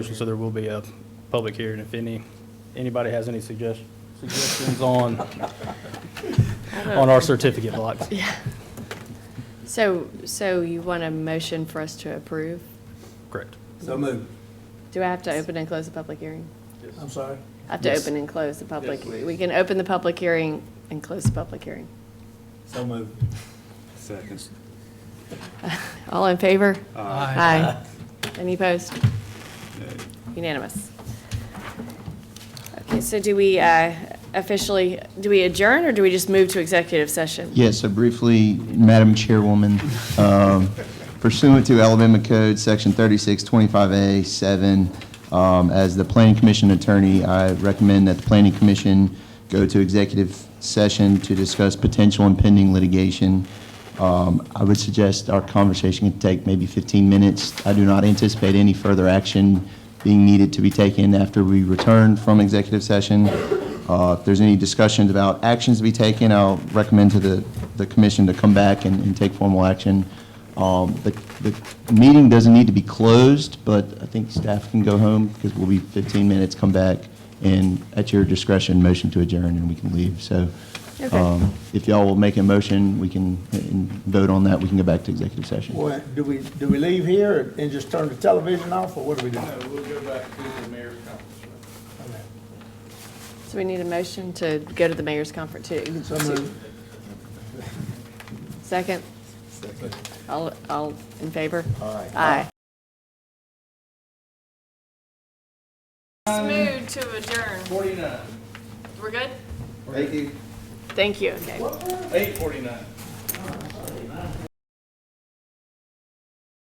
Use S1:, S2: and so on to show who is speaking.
S1: So there will be a public hearing if any, anybody has any suggestions, suggestions on, on our certificate blocks.
S2: So, so you want a motion for us to approve?
S1: Correct.
S3: So moved.
S2: Do I have to open and close the public hearing?
S3: I'm sorry.
S2: I have to
S1: Yes.
S2: open and close the public,
S3: Yes, please.
S2: we can open the public hearing and close the public hearing.
S3: So moved.
S4: Seconds.
S2: All in favor?
S4: Aye.
S2: Aye. Any opposed? Unanimous. Okay, so do we uh, officially, do we adjourn, or do we just move to executive session?
S5: Yes, so briefly, Madam Chairwoman, um, pursuant to Alabama Code, Section 3625A7, um, as the Planning Commission attorney, I recommend that the Planning Commission go to executive session to discuss potential impending litigation. Um, I would suggest our conversation can take maybe 15 minutes. I do not anticipate any further action being needed to be taken after we return from executive session. Uh, If there's any discussions about actions to be taken, I'll recommend to the, the commission to come back and, and take formal action. Um, The, the meeting doesn't need to be closed, but I think staff can go home because we'll be 15 minutes, come back, and at your discretion, motion to adjourn, and we can leave. So
S2: Okay.
S5: um, if y'all will make a motion, we can uh, vote on that, we can go back to executive session.
S3: Well, do we, do we leave here and just turn the television off, or what do we do?
S4: We'll go back to the mayor's conference room.
S2: So we need a motion to go to the mayor's conference, to,
S3: So moved.
S2: second? All, all in favor?
S3: Aye.
S2: Aye. Smooth to adjourn. Forty-nine. We're good?
S3: Thank you.
S2: Thank you, okay.
S4: Eight forty-nine.